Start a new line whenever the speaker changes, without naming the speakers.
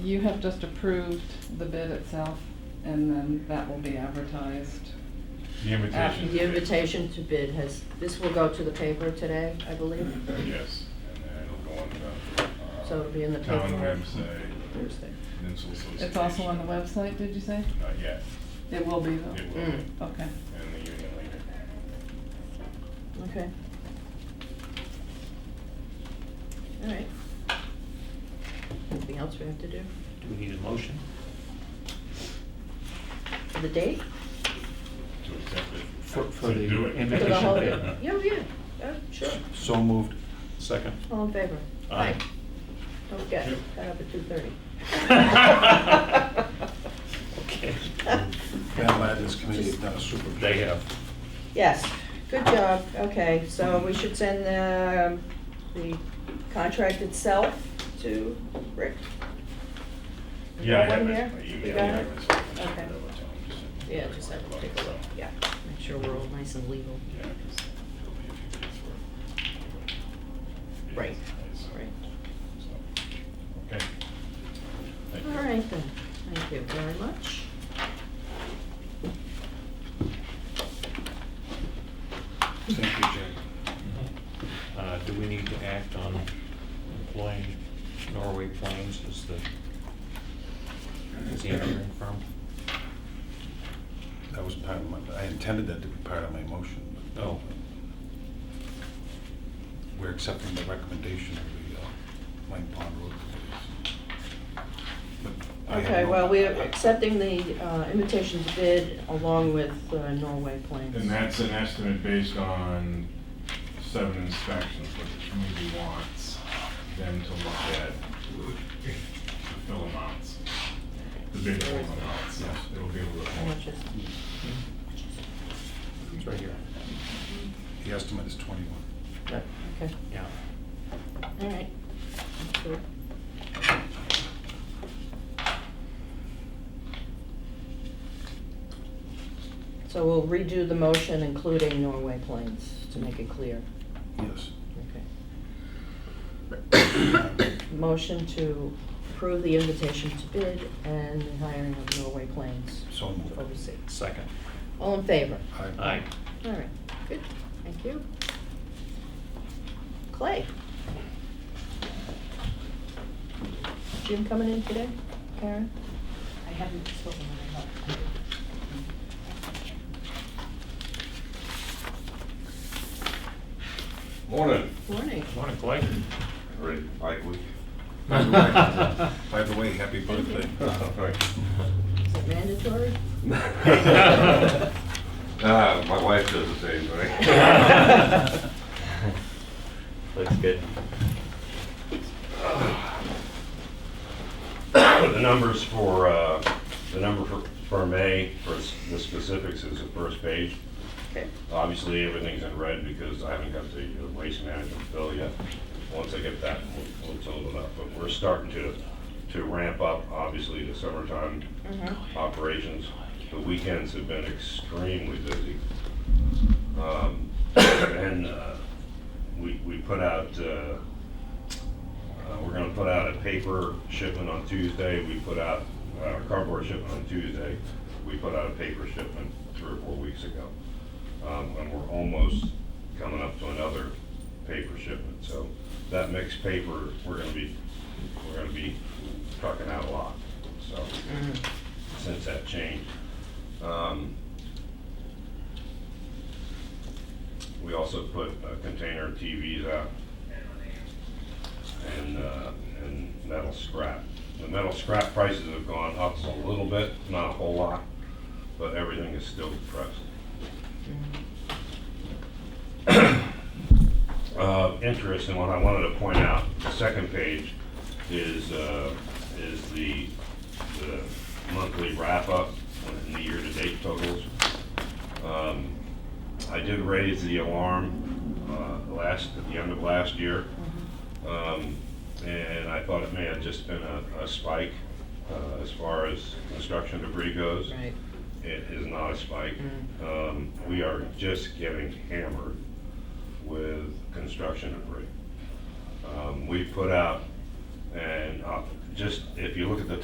You have just approved the bid itself, and then that will be advertised.
The invitation.
After
The invitation to bid has, this will go to the paper today, I believe,
Yes, and then it'll go on the. uh,
So it'll be in the
Town
paper.
website,
Thursday.
Peninsula Association.
It's also on the website, Oh. did you say?
Not yet,
It will be
it
though.
will, be,
Mm.
Okay.
and the union leader.
Okay. All right. Anything else we have to do?
Do we need a motion?
The date?
To accept it.
For- for
To
the
do it.
For the
invitation
whole
bid.
Yeah, yeah, yeah, sure.
So moved. Second.
All in favor?
Aye.
Don't get
Yep.
caught up at two thirty.
Okay.
I'm glad this committee has done a super job.
They have.
Yes, good job. Okay, so we should send the, the contract itself to Rick?
Yeah, I have
One
it.
here?
I
You
emailed it. I
got it?
just- I just
Okay.
forgot what time, just-
Yeah, just have to take a look, yeah. Make sure we're all nice and legal.
Yeah, 'cause it'll be a few days worth.
Right,
Yes.
right.
So, Okay. Thank you.
All right then, thank you very much.
Thank you, Jim.
Uh, Do we need to act on employing Norway Plains as the, as the engineering firm?
That was part of my, I intended that to be part of my motion. but
Oh.
We're accepting the recommendation of the uh, Lang Pond Road Committee. But I have
Okay,
no-
well, we're accepting the uh, invitation to bid along with uh, Norway Plains.
And that's an estimate based on seven inspections, what the community wants them to look at, the fill amounts, the big fill amounts, yes, it'll be a
How
little more.
much is,
It's right here.
The estimate is 21.
okay,
Yeah.
all right. Sure. So we'll redo the motion, including Norway Plains, to make it clear.
Yes.
Okay. Motion to approve the invitation to bid and the hiring of Norway Plains
So
to
moved.
oversee.
Second.
All in favor?
Aye.
Aye.
All right, good, thank you. Clay? Jim coming in today? Karen?
I haven't spoken with her.
Morning.
Morning.
Morning, Clay.
Ready, Mike, we?
By the way- by the way, happy birthday.
Oh,
Is it mandatory?
Ah, Uh, my wife does the same, right?
Looks good.
The numbers for, uh, the number for, for May, for s- the specifics is the first page.
Okay.
Obviously, everything's in red because I haven't got the uh, waste management bill yet. Once I get that, we'll- we'll total it up, but we're starting to, to ramp up, obviously, the summertime operations. The weekends have been extremely busy. Um, And uh, we, we put out, uh, uh, we're gonna put out a paper shipment on Tuesday, we put out uh, cardboard shipment on Tuesday, we put out a paper shipment three or four weeks ago. Um, And we're almost coming up to another paper shipment, so that mixed paper, we're gonna be, we're gonna be trucking out a lot, so, since that changed. Um, We also put uh, container TVs out and, uh, and metal scrap. The metal scrap prices have gone up a little bit, not a whole lot, but everything is still depressed. uh, interest, and what I wanted to point out, the second page is, uh, is the, the monthly wrap-up and the year-to-date totals. Um, I did raise the alarm, uh, last, at the end of last year. Um, and I thought it may have just been a, a spike, uh, as far as construction debris goes.
Right.
It is not a spike. Um, We are just getting hammered with construction debris. Um, We put out, and uh,
just, if you look at the